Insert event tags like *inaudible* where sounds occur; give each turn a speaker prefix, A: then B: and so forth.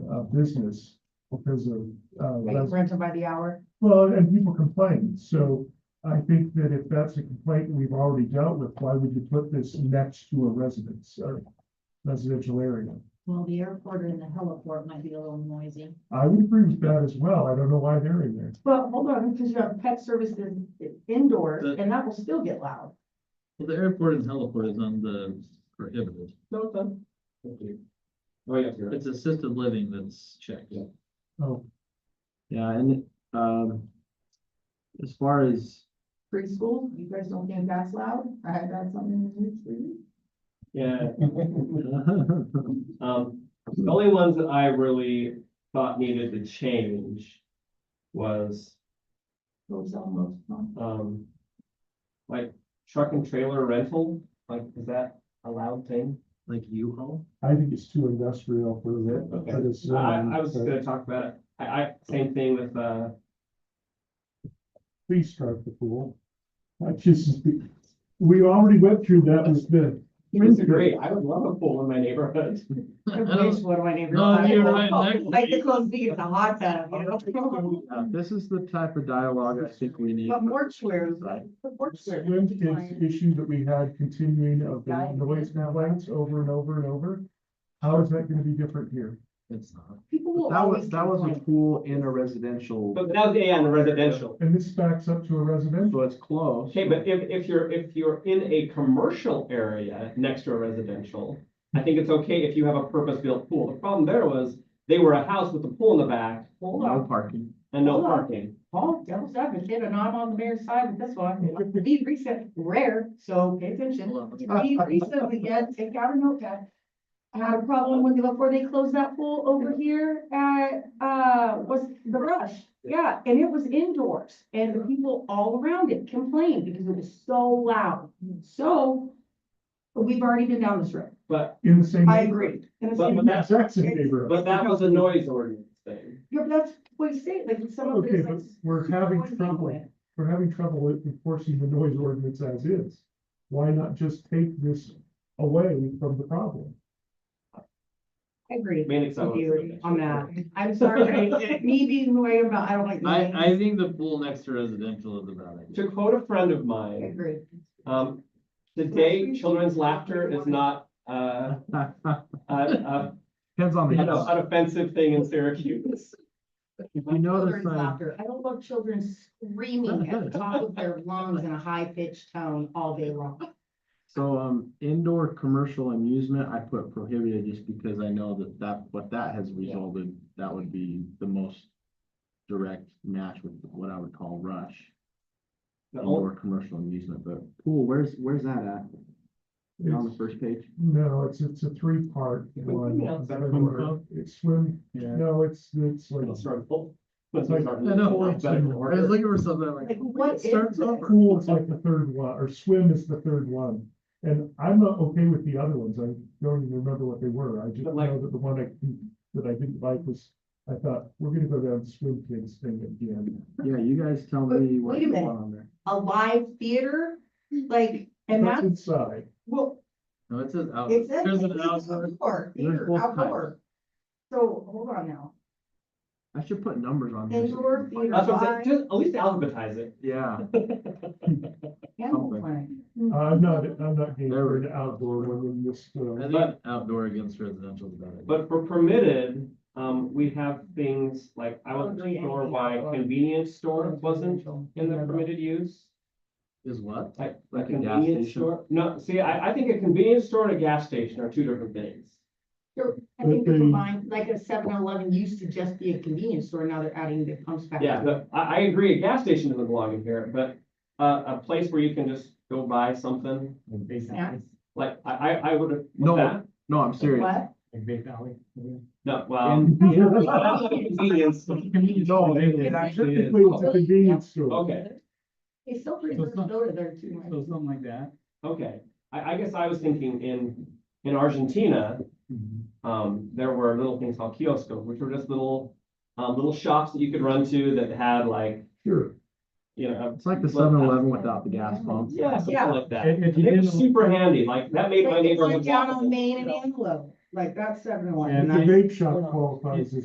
A: uh, business because of, uh,
B: Like
A: res-
B: rented by the hour.
A: well, and people complain. So I think that if that's a complaint we've already dealt with, why would you put this next to a residence or residential area?
C: Well, the airport and the heliport might be a little noisy.
A: I would agree with that as well. I don't know why they're in there.
B: But hold on, because you have pet services indoors
D: The-
B: and that will still get loud.
D: Well, the airport and heliport is on the prohibited.
B: No, it's not.
E: Oh, yeah, you're right.
D: It's assisted living that's checked.
E: Yeah.
A: Oh,
F: Yeah, and, um, as far as,
B: preschool, you guys don't think that's loud? I had that something in the news for you.
E: Yeah, *laughs* um, the only ones that I really thought needed to change was,
B: Those almost, huh?
C: *laughs*
E: um, like truck and trailer rental, like, is that a loud thing?
D: Like U-Haul?
A: I think it's too industrial for that.
E: Okay.
A: but it's,
E: I,
A: um,
E: I was just gonna talk about it. I, I, same thing with, uh,
A: Please strike the pool. I just, we already went through that with the.
E: this is great. I would love a pool in my neighborhood.
D: *laughs*
E: *laughs*
D: I
B: Wish,
D: don't-
B: What do I need? to
D: No,
B: reply?
D: you're right, next.
B: I could go see it's a hot tub, you know?
F: uh, this is the type of dialogue I think we
B: *laughs*
F: need.
B: But mortuaries, the mortuaries.
A: Swim kids issue that we had continuing of the noise complaints over and over and over. How is that gonna be different here?
D: It's not.
B: People will
F: That was,
B: always
F: that was a
B: complain.
F: pool in a residential,
E: But that was, yeah, in the residential.
A: And this backs up to a residential.
F: so it's close.
E: Okay, but if, if you're, if you're in a commercial area next to a residential, I think it's okay if you have a purpose-built pool. The problem there was, they were a house with a pool in the back
B: Hold
F: No
B: on,
F: parking.
E: and no
B: Hold on.
E: parking.
B: Paul, devil's advocate, and I'm on the mayor's side with this one. Deed recent, rare, so pay attention.
D: Hold on, let's-
B: Deed recent, we get, take out a notepad. I had a problem with, before they closed that pool over here at, uh, was the rush. Yeah, and it was indoors and the people all around it complained because it was so loud. So we've already been down this road.
E: But,
A: In the same.
B: I agree. And it's,
E: But-
A: In
E: but
B: yeah,
A: the exact same neighborhood.
E: but that was a noise ordinance thing.
B: but that's what you say, like some of
A: Okay,
B: this.
A: but
B: like,
A: we're having
B: poison
A: trouble,
B: with.
A: we're having trouble with enforcing the noise ordinance as is. Why not just take this away from the problem?
B: I agree.
E: Mainly 'cause I
B: with you
E: was-
B: on that. I'm sorry, but me being the way I'm about, I don't like.
D: I, I
B: names.
D: think the pool next to residential is a bad idea.
E: To quote a friend of
B: I
E: mine,
B: agree.
E: um, today children's laughter is not, uh, a,
B: *laughs*
E: a,
F: Depends on
E: an
F: the. house.
E: an offensive thing in Syracuse.
F: If *laughs* you notice,
B: Children's
F: uh,
B: laughter. I don't love children screaming at the top of their lungs in a high pitched tone all day long.
F: so, um, indoor commercial amusement, I put prohibited just because I know that that, what that has resulted, that would be the most direct match with what I would call rush.
E: The only-
F: Indoor commercial amusement, but pool, where's, where's that at? On the
A: It's-
F: first page?
A: No, it's, it's a three-part
E: Yeah,
A: one.
E: yeah, is that
A: Where
E: swim club?
A: It's swim,
D: Yeah.
A: no, it's, it's like
E: Let's start full.
A: It's like-
D: I know,
E: It's better in order.
D: I was looking for something I'm like.
B: Like, what is
D: starts
B: this?
D: over.
A: Pool is like the third one, or swim is the third one. And I'm not okay with the other ones. I don't even remember what they were. I just
E: But like-
A: know that the one I, that I didn't like was, I thought, we're gonna go down swim kids thing again.
F: Yeah, you guys tell
B: Wait-
F: me what
B: wait a
F: you
B: minute.
F: want on there.
B: A live theater, like, and
A: That's
B: that's,
A: inside.
B: well,
D: No, it says out,
B: it says.
D: there's
B: it's
D: an outdoor.
B: outdoor,
F: There's
B: theater,
F: both types.
B: outdoor. So, hold on now,
F: I should put numbers on this.
B: indoor theater,
E: That's what I'm saying,
B: live
E: just at least alphabetize it.
F: Yeah,
B: animal
F: Okay.
B: planet.
A: I'm not, I'm not game
F: There
A: for
F: we
A: an outdoor one in this,
D: I
A: uh,
D: think outdoor against residential is a bad idea.
E: But for permitted, um, we have things like, I wasn't
B: Probably
E: sure
B: anything
E: why
B: outdoor.
E: convenience store wasn't in the permitted use.
D: Is what?
E: Like, a
F: Like a gas
E: convenience
F: station?
E: store, no, see, I, I think a convenience store and a gas station are two different things.
B: I think
A: But
B: they're
A: they-
B: combined, like a seven eleven used to just be a convenience store, now they're adding the pumps back.
E: Yeah, but I, I agree, a gas station doesn't belong in here, but a, a place where you can just go buy something.
B: Snacks.
E: Like, I, I, I would have.
F: No. no, I'm serious.
B: What?
E: No, well.
A: Um,
F: *laughs* And-
E: that's a convenience store.
F: No, it- it actually is.
A: Typically, it's a convenience store.
E: Okay,
B: It's still pretty
D: So
B: good
D: it's
B: to
D: not-
B: go to there too.
D: So something like that.
E: okay, I, I guess I was thinking in, in Argentina, um, there were little things called kioscos, which were just little, um, little shops that you could run to that had like,
A: Sure.
E: you know.
F: It's like the seven eleven without the gas pump.
E: Yeah, something
B: Yeah.
E: like that.
A: And if you
E: They were
A: didn't-
E: super handy, like that made my
B: Like, it's like
E: neighborhood.
B: down on
E: walkable,
B: Main and
E: you know?
B: Anglo, like that's seven eleven.
A: The vape shop qualifies as